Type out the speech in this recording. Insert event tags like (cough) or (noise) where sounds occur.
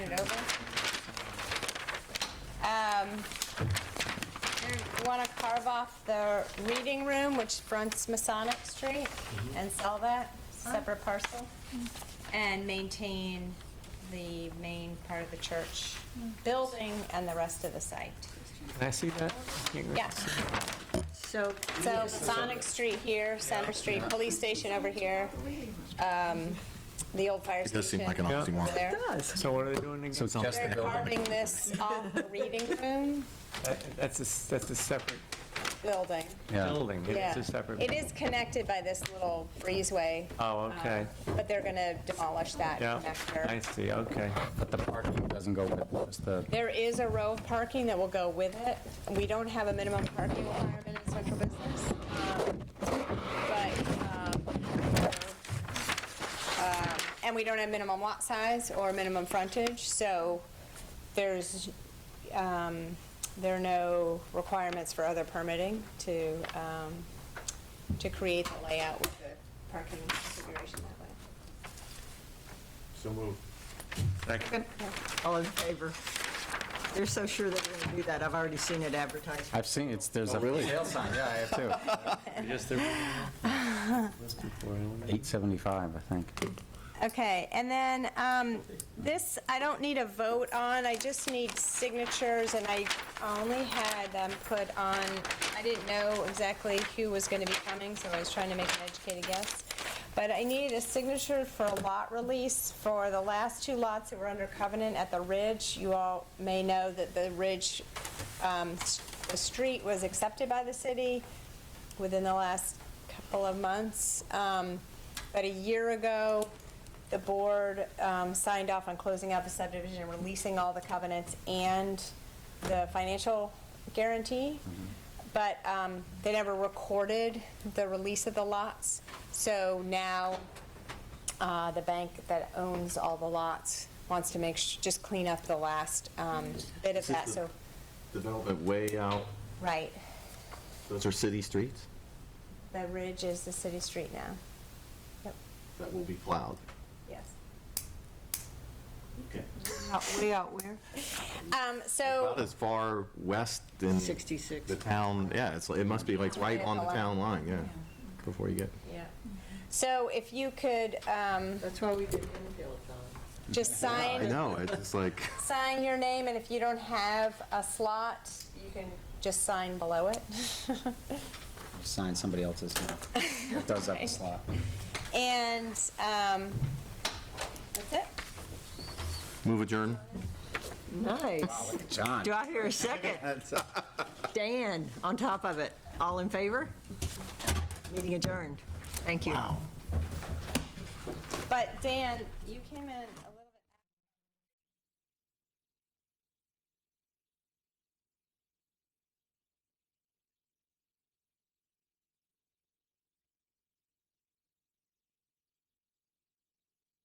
it over. Um, Want to carve off the reading room, which fronts Masonic Street, Mm-hmm. and sell that, separate parcel, and maintain the main part of the church building and the rest of the site. Can I see that? Yeah, So, so Masonic Street here, Center Street, police station over here, um, the old fire It does seem station like an Yeah. over oxymoron. there. So what are they doing? So it's not- They're carving this off the reading room That's a, s- that's a separate building. building. Yeah. It's a separate. It is connected by this little breezeway, um, Oh, okay. but they're going to demolish that Yeah, I connector. see, okay. But the parking doesn't go with it, just the, There is a row of parking that will go with it. We don't have a minimum parking requirement in central business. um, But, um, um, and we don't have minimum lot size or minimum frontage, so there's, um, there are no requirements for other permitting to, um, to create the layout with the parking configuration that way. So moved. all in favor? They're so sure they're going to do that, I've already seen it advertised. I've seen, it's, there's a sale sign, yeah, I have too. Just the. 875, I think. Okay, and then um, this, I don't need a vote on, I just need signatures, and I only had them put on, I didn't know exactly who was going to be coming, so I was trying to make an educated guess. But I needed a signature for a lot release for the last two lots that were under covenant at the Ridge. You all may know that the Ridge, um, s- the street was accepted by the city within the last couple of months. Um, About a year ago, the board um, signed off on closing out the subdivision, releasing all the covenants and the financial guarantee, Mm-hmm. but um, they never recorded the release of the lots. So now, uh, the bank that owns all the lots wants to make, sh- just clean up the last um, bit of This is that, the- so, Development way out, right. those are city streets The ridge is the city street now. Yep, that will be plowed. yes. Okay. Way out where? Um, so, About as far west in 66. the town, yeah, it's, it must be like right on the town line, yeah, before you get. yeah. So if you could, um, That's why we did infield on. just I sign, know, it's just like, sign your name, and if you don't have a slot, you can just sign below it. (laughs) Sign somebody else's, name. it does have a slot. And, um, that's it. move adjourn. Nice. John. Do I hear (laughs) a second? Dan, on top of it, all in favor? Meeting adjourned. Thank you. But Dan, you came in a little.